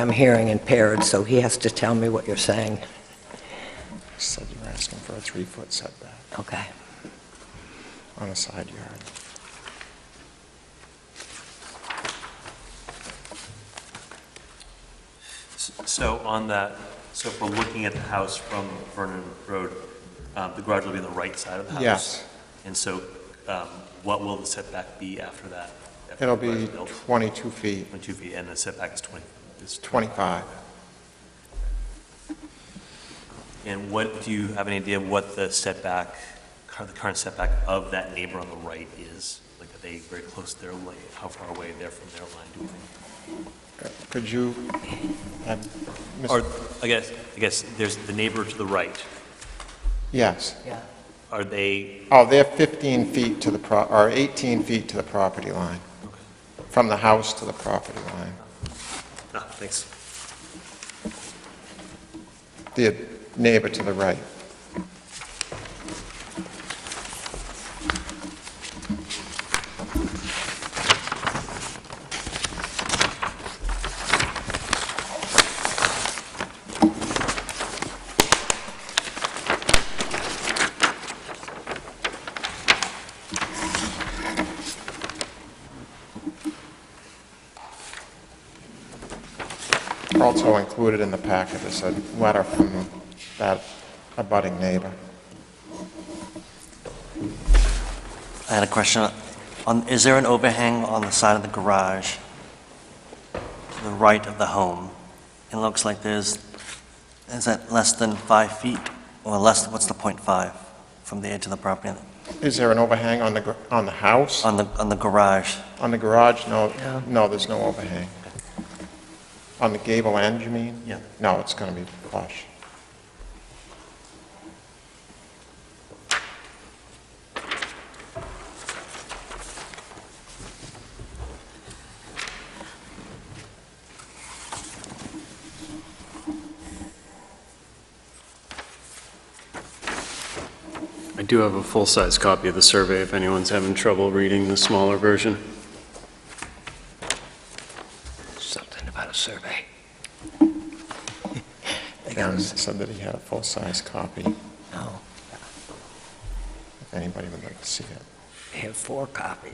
I'm hearing impaired, so he has to tell me what you're saying. Said you were asking for a three-foot setback Okay. on a side yard. So on that, so if we're looking at the house from Vernon Road, um, the garage will be on the right side of the house? Yes. And so um, what will the setback be after that? after It'll the garage be is built? 22 feet, 22 feet, and the setback is 20. is 25. And what, do you have any idea what the setback, cur- the current setback of that neighbor on the right is? Like, are they very close to their line, how far away they're from their line, do you think? Could you, um, Mr. Or, I guess, I guess there's the neighbor to the right, yes. Yeah. are they, Oh, they're 15 feet to the, pro or 18 feet to the property line, okay, from the house to the property line. ah, thanks. The neighbor to the right. Also included in the packet is a letter from that abutting neighbor. I had a question. On, is there an overhang on the side of the garage to the right of the home? It looks like there's, is that less than five feet or less, what's the point five from the edge of the property? Is there an overhang on the, gr- on the house? On the, on the garage? On the garage, no, No. no, there's no overhang. On the gable end, you mean? Yeah. No, it's going to be flush. I do have a full-size copy of the survey if anyone's having trouble reading the smaller version. Something about a survey. They got Karen us. said that he had a full-size copy, if No, anybody would like to see it. they have four copies.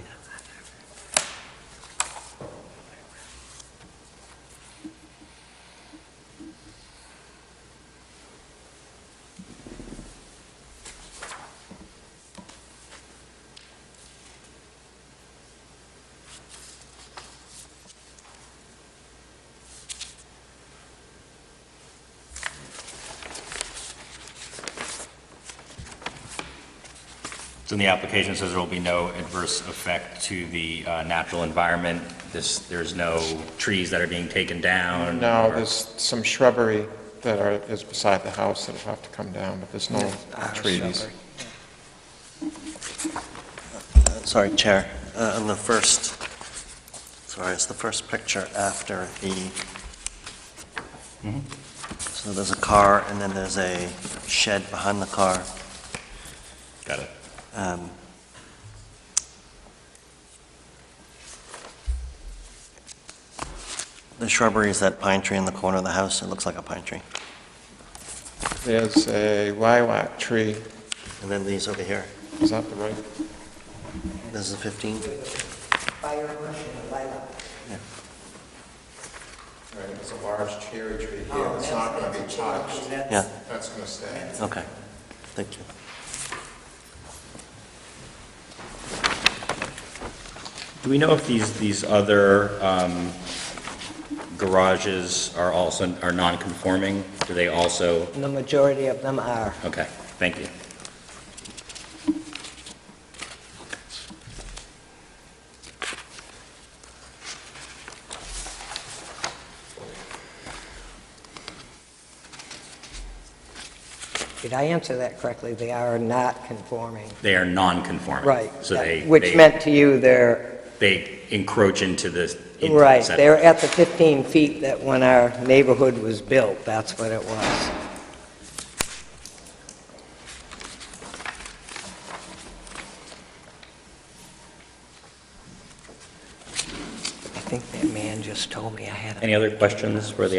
So in the application it says there will be no adverse effect to the uh, natural environment. This, there's no trees that are being taken down? No, or- there's some shrubbery that are, is beside the house that'll have to come down, but there's no Ah, trees. shrubbery. Uh, Sorry, Chair, Uh, on the first, sorry, it's the first picture after the, so there's a car and then there's a shed behind the car. Got it. Um, The shrubbery is that pine tree in the corner of the house, it looks like a pine tree. There's a lilac tree, And then these over here, is that the right? this is 15, Fire bush and lilac. Right, it's a large cherry tree here, it's not going to be touched, yeah, that's going to stay. okay, thank you. Do we know if these, these other um, garages are also, are non-conforming? Do they also, The majority of them are. okay, thank you. Did I answer that correctly? They are not conforming. They are non-conforming? Right. So they, Which they- meant to you, they're, They encroach into the. into the right, they're setback. at the 15 feet that when our neighborhood was built, that's what it was. I think that man just told me I had a... Any other questions for the